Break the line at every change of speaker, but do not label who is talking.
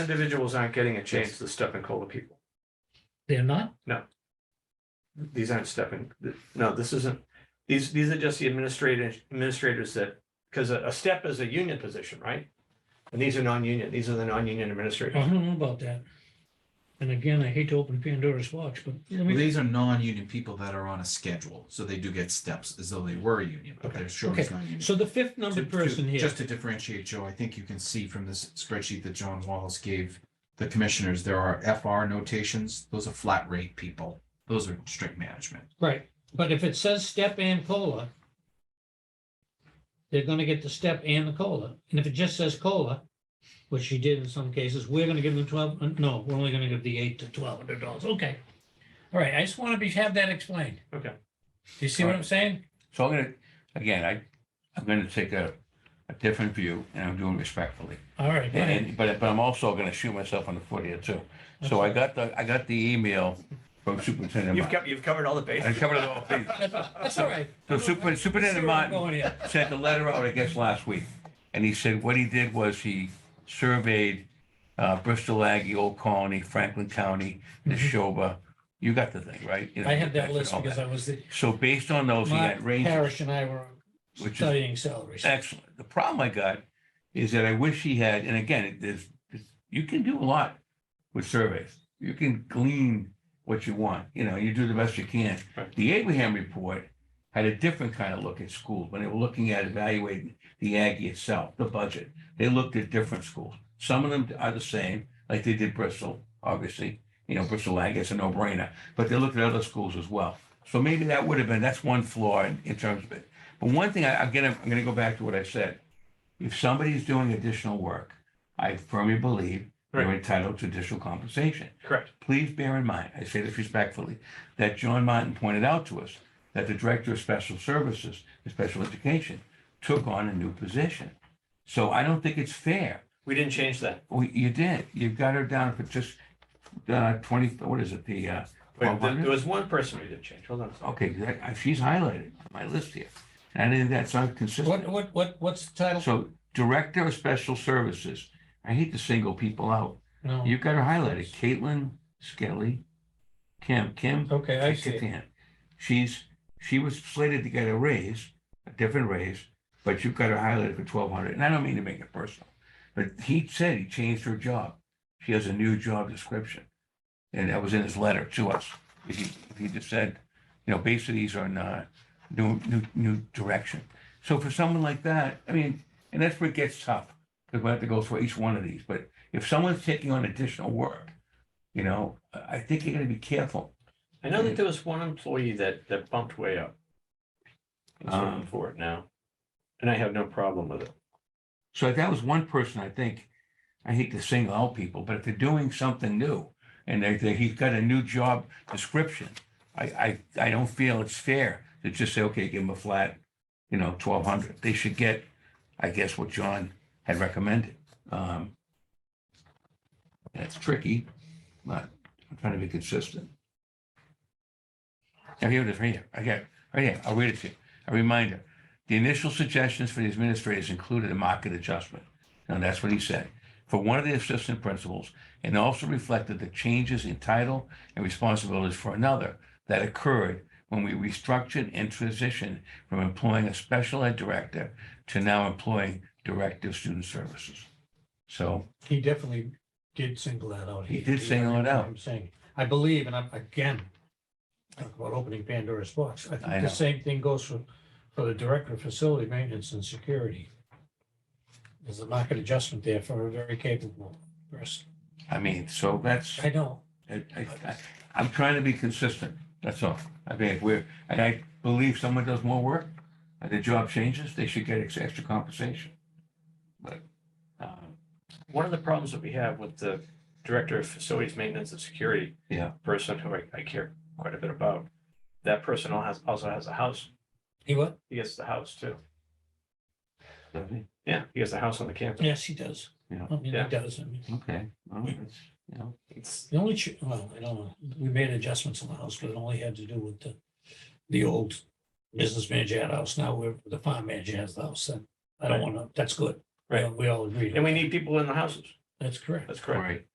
individuals aren't getting a chance to step in cola people.
They're not?
These aren't stepping, no, this isn't, these, these are just the administrators, administrators that, because a, a step is a union position, right? And these are non-union, these are the non-union
I
administrators.
don't know about that. And again, I hate to open Pandora's box, but let
Well,
me,
These are non-union people that are on a schedule, so they do get steps as though they were a union, but they're sure it's
Okay.
not union.
so the fifth
To-
numbered
to-
person here,
Just to differentiate, Joe, I think you can see from this spreadsheet that John Wallace gave the commissioners, there are FR notations. Those are flat rate people. Those are strict management.
right, but if it says step and cola, they're gonna get the step and the cola. And if it just says cola, which she did in some cases, we're gonna give them twelve, uh, no, we're only gonna give the eight to twelve hundred dollars, okay. All right, I just wanna be, have that explained.
Okay.
Do you see what I'm saying?
So I'm gonna, again, I, I'm gonna take a, a different view and I'm doing it respectfully.
All right, Brian.
And, but, but I'm also gonna shoot myself in the foot here too. So I got the, I got the email from Superintendent
You've
Martin.
kept, you've covered all the
I
bases.
covered it all, please.
That's that's all right.
So Super- Superintendent Martin-
Going here.
sent the letter out, I guess, last week. And he said what he did was he surveyed uh, Bristol Aggie, Old Colony, Franklin County, Neshoba. You got the thing, right? You
Mm-hmm.
know,
I had that
and
list
all
because
that.
I was the,
So based on those, he
Mark
had ranges.
Parrish and I were
Which is-
studying salaries.
Excellent. The problem I got is that I wish he had, and again, it- there's, it's- you can do a lot with surveys. You can glean what you want, you know, you do the best you can.
Right.
The Abraham report had a different kind of look at schools, when they were looking at evaluating the Aggie itself, the budget. They looked at different schools. Some of them are the same, like they did Bristol, obviously, you know, Bristol Aggie, it's a no-brainer, but they looked at other schools as well. So maybe that would have been, that's one flaw in, in terms of it. But one thing, I, again, I'm going to go back to what I said. If somebody's doing additional work, I firmly believe they're
Right.
entitled to additional compensation.
Correct.
Please bear in mind, I say this respectfully, that John Martin pointed out to us that the Director of Special Services and Special Education took on a new position. So I don't think it's fair.
We didn't change that.
We, you did. You've got her down for just uh, 20, what is it, the, uh,
Wait, There
1,200?
there was one person we did change, hold on. a second.
okay, that- she's highlighted on my list here. And I didn't, that's not consistent.
What, what, what, what's the title?
So Director of Special Services, I hate to single people out.
No.
You've got her highlighted, Caitlin Skelly, Kim, Kim.
Okay, I see. it.
Katan. She's, she was slated to get a raise, a different raise, but you've got her highlighted for twelve hundred, and I don't mean to make it personal. But he said he changed her job. She has a new job description. And that was in his letter to us. If He, if he just said, you know, basically these are not new, new, new direction. So for someone like that, I mean, and that's where it gets tough, because we have to go through each one of these. But if someone's taking on additional work, you know, I I think you got to be careful.
I know that there was one employee that, that bumped way up. He's looking
Um,
for it now. And I have no problem with it.
So if that was one person, I think, I hate to single out people, but if they're doing something new and they, they, he's got a new job description, I, I, I don't feel it's fair to just say, okay, give him a flat, you know, twelve hundred. They should get, I guess, what John had recommended. Um, That's tricky, but I'm trying to be consistent. Now, here it is, right here. I got, it, right here. I'll read it to you. A reminder, the initial suggestions for the administrators included a market adjustment. And that's what he said. For one of the assistant principals, and also reflected the changes in title and responsibilities for another that occurred when we restructured and transitioned from employing a special ed director to now employing director of student services. So,
He definitely did single that out.
He did single it out.
I'm saying, I believe, and I'm, again, talk about opening Pandora's box. I
I
think
know.
the same thing goes for, for the Director of Facility Maintenance and Security. There's a market adjustment there for a very capable person.
I mean, so that's.
I know.
I, I, I- I'm trying to be consistent, that's all. I mean, if we're, and I believe someone does more work, and their job changes, they should get ex- extra compensation. But, um,
one of the problems that we have with the director of facilities maintenance and security
Yeah.
person who I, I care quite a bit about, that person al- has, also has a house.
He what?
He gets the house too.
does he?
Yeah, he has a house on the campus.
Yes, he does.
Yeah.
I mean, he
Yeah.
does. I mean,
okay, well, that's, you know,
It's,
The only, ch- well, I don't know, we made adjustments on the house, but it only had to do with the, the old business manager had a house, now we're, the farm manager has the house, and I don't wanna, that's good.
Right.
Uh, We all agree.
and we need people in the houses.
That's correct.
That's correct.
Right.